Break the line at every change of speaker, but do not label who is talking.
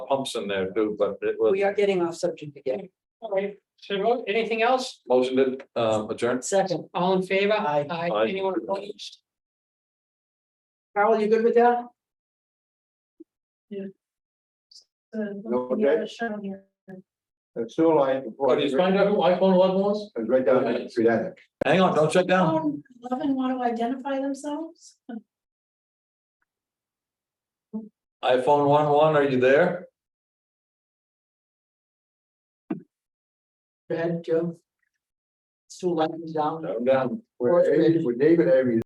pumps in there too, but it was
We are getting off subject again.
All right, so anything else?
motion to um adjourn.
Second,
All in favor?
Aye.
Aye.
Anyone opposed?
Carol, you good with that?
Okay. The sewer line.
Oh, did you find out who iPhone eleven was?
It's right down in Sudan.
Hang on, don't shut down.
Eleven want to identify themselves?
iPhone one one, are you there?
Go ahead, Joe. It's too light and down.
No, I'm down.
Where David- where David Avery